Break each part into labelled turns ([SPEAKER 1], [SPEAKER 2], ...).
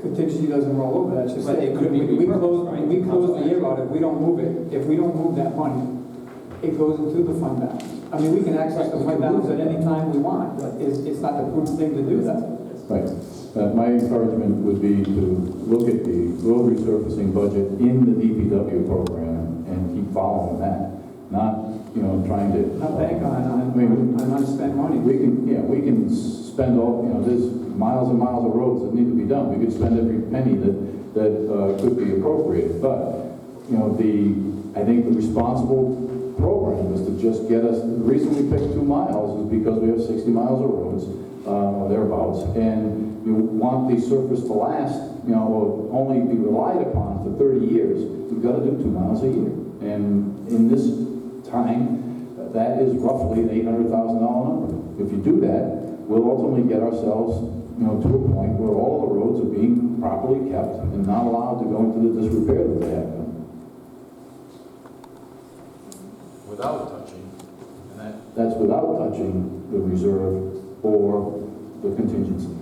[SPEAKER 1] contingency doesn't roll over, that's just.
[SPEAKER 2] But it could be
[SPEAKER 1] We we
[SPEAKER 2] repurposed,
[SPEAKER 1] close,
[SPEAKER 2] right?
[SPEAKER 1] we close the year out, if we don't move it, if we don't move that money, it goes into the fund balance. I mean, we can access the fund balance at any time we want, but it's, it's not the prudent thing to do that.
[SPEAKER 3] Right. Uh, My encouragement would be to look at the road resurfacing budget in the DPW program and keep following that, not, you know, trying to.
[SPEAKER 1] Not bank on,
[SPEAKER 3] I mean,
[SPEAKER 1] on, on unspent money.
[SPEAKER 3] We can, yeah, we can spend all, you know, there's miles and miles of roads that need to be done. We could spend every penny that, that uh, could be appropriated. But, you know, the, I think the responsible program is to just get us, the reason we picked two miles is because we have 60 miles of roads, uh, or thereabouts. And you want the surface to last, you know, or only be relied upon for 30 years. You've got to do two miles a year. And in this time, that is roughly an eight hundred thousand dollar number. If you do that, we'll ultimately get ourselves, you know, to a point where all the roads are being properly kept and not allowed to go into the disrepair that they have been.
[SPEAKER 4] without touching, and that,
[SPEAKER 3] That's without touching the reserve or the contingency.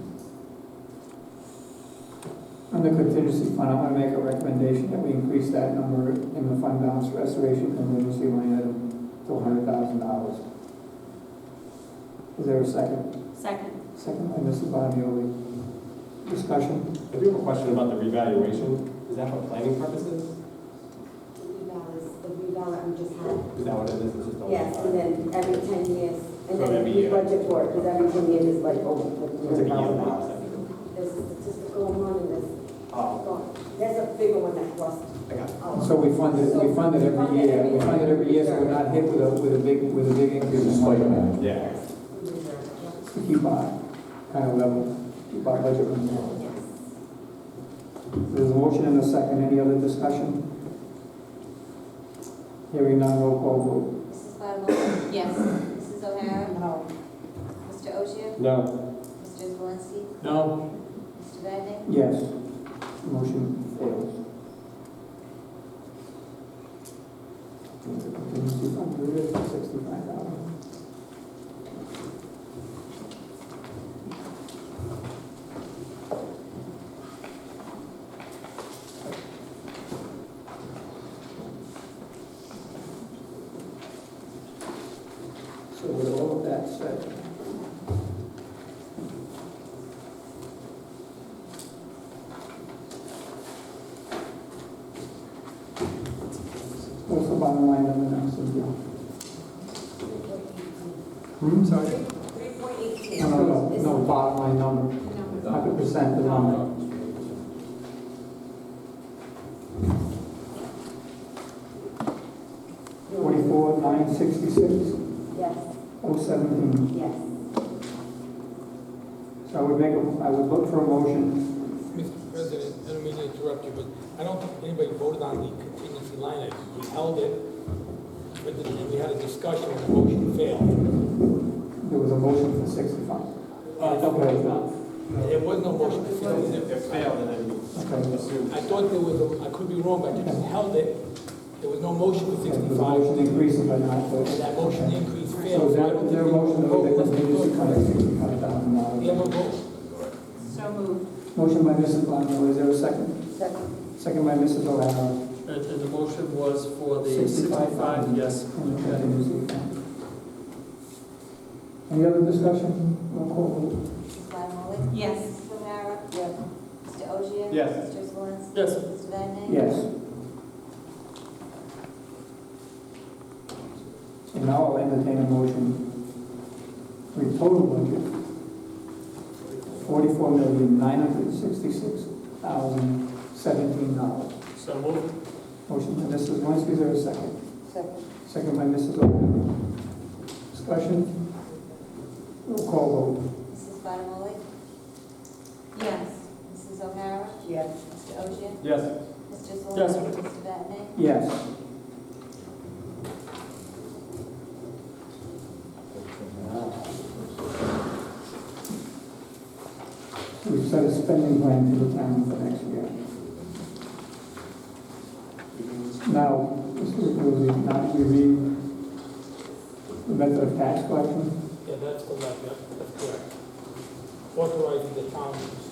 [SPEAKER 1] On the contingency fund, I'm gonna make a recommendation that we increase that number in the fund balance restoration contingency line item to hundred thousand dollars. Is there a second?
[SPEAKER 5] Second.
[SPEAKER 1] Second by Mrs. Bonioli. Discussion?
[SPEAKER 2] I do have a question about the revaluation. Is that for planning purposes?
[SPEAKER 5] The rebalance, the rebalance we just had.
[SPEAKER 2] Is that what it is? It's just a-
[SPEAKER 5] Yes, and then every ten years, and
[SPEAKER 2] So
[SPEAKER 5] then
[SPEAKER 2] every
[SPEAKER 5] we
[SPEAKER 2] year.
[SPEAKER 5] budget for it, because every ten years is like, oh,
[SPEAKER 2] It's a
[SPEAKER 5] fifty
[SPEAKER 2] year
[SPEAKER 5] thousand
[SPEAKER 2] now,
[SPEAKER 5] dollars.
[SPEAKER 2] is that-
[SPEAKER 5] There's a statistical one, and there's,
[SPEAKER 2] Oh,
[SPEAKER 5] there's a bigger one that Oh. cost.
[SPEAKER 2] I got it.
[SPEAKER 1] So we fund it, we fund it every year, we fund it every year, so we're not hit with a, with a big, with a big increase
[SPEAKER 3] It's a
[SPEAKER 1] in
[SPEAKER 3] spike
[SPEAKER 1] money.
[SPEAKER 3] management.
[SPEAKER 2] Yeah.
[SPEAKER 1] To keep our kind of level, keep our budget level. There's a motion and a second, any other discussion? Hearing none, roll call vote.
[SPEAKER 6] Mrs. Bottomoli? Yes. Mrs. O'Hara?
[SPEAKER 5] No.
[SPEAKER 6] Mr. Oshia?
[SPEAKER 2] No.
[SPEAKER 6] Mr. Zelinski?
[SPEAKER 2] No.
[SPEAKER 6] Mr. Vadeney?
[SPEAKER 1] Yes, motion fails. Contingency fund, there is sixty-five thousand. So with all of that said, what's the bottom line of the next deal? Hmm, sorry?
[SPEAKER 5] Three point eight.
[SPEAKER 1] No, no, no, no, bottom line number, not the percent, the number. Forty-four, nine, sixty-six,
[SPEAKER 5] Yes,
[SPEAKER 1] oh, seventeen.
[SPEAKER 5] yes.
[SPEAKER 1] So I would make, a- I would look for a motion,
[SPEAKER 7] Mr. President, I don't mean to interrupt you, but I don't think anybody voted on the contingency line item. We held it, but then we had a discussion, and the motion failed.
[SPEAKER 1] there was a motion for sixty-five.
[SPEAKER 2] Uh, don't worry, it's not.
[SPEAKER 7] There was no motion to
[SPEAKER 2] If
[SPEAKER 7] fail.
[SPEAKER 2] it failed, then you
[SPEAKER 1] Okay.
[SPEAKER 2] assume.
[SPEAKER 7] I thought there was, a- I could be wrong, but I just held it. There was no motion for
[SPEAKER 1] There was a motion to
[SPEAKER 7] 65,
[SPEAKER 1] increase it by nine, but.
[SPEAKER 7] and that motion increase
[SPEAKER 1] So
[SPEAKER 7] failed.
[SPEAKER 1] is
[SPEAKER 7] I
[SPEAKER 1] there,
[SPEAKER 7] don't
[SPEAKER 1] is there a
[SPEAKER 7] think we
[SPEAKER 1] motion to make the
[SPEAKER 7] voted.
[SPEAKER 1] contingency cut at sixty-five thousand
[SPEAKER 7] We have
[SPEAKER 1] dollars?
[SPEAKER 7] a vote.
[SPEAKER 6] So moved.
[SPEAKER 1] Motion by Mrs. Bonneville, is there a second?
[SPEAKER 5] Second,
[SPEAKER 1] Second by Mrs. O'Hara.
[SPEAKER 8] And, and the motion was for the
[SPEAKER 1] 65,000.
[SPEAKER 8] sixty-five, yes.
[SPEAKER 1] on the contingency fund. Any other discussion? Roll call vote.
[SPEAKER 6] Mrs. Bottomoli?
[SPEAKER 5] Yes.
[SPEAKER 6] Mrs. O'Hara?
[SPEAKER 5] yes.
[SPEAKER 6] Mr. Oshia?
[SPEAKER 2] Yes.
[SPEAKER 6] Mr. Zelinski?
[SPEAKER 8] Yes.
[SPEAKER 6] Mr. Vadeney?
[SPEAKER 1] Yes. And now I'll entertain a motion for a total budget, forty-four million, nine hundred sixty-six thousand, seventeen dollars.
[SPEAKER 8] So moved.
[SPEAKER 1] Motion by Mrs. Zelinski, is there a second?
[SPEAKER 5] Second,
[SPEAKER 1] Second by Mrs. O'Hara. Discussion? Roll call vote.
[SPEAKER 6] Mrs. Bottomoli? Yes. Mrs. O'Hara?
[SPEAKER 5] yes.
[SPEAKER 6] Mr. Oshia?
[SPEAKER 2] Yes.
[SPEAKER 6] Mr. Zelinski?
[SPEAKER 8] Yes.
[SPEAKER 6] Mr. Vadeney?
[SPEAKER 1] Yes. We've set a spending plan for the town for next year. Now, Mr. Ruggeri, now we read the method of tax collection.
[SPEAKER 7] Yeah, that's correct, yeah, that's correct. Authorizing the town to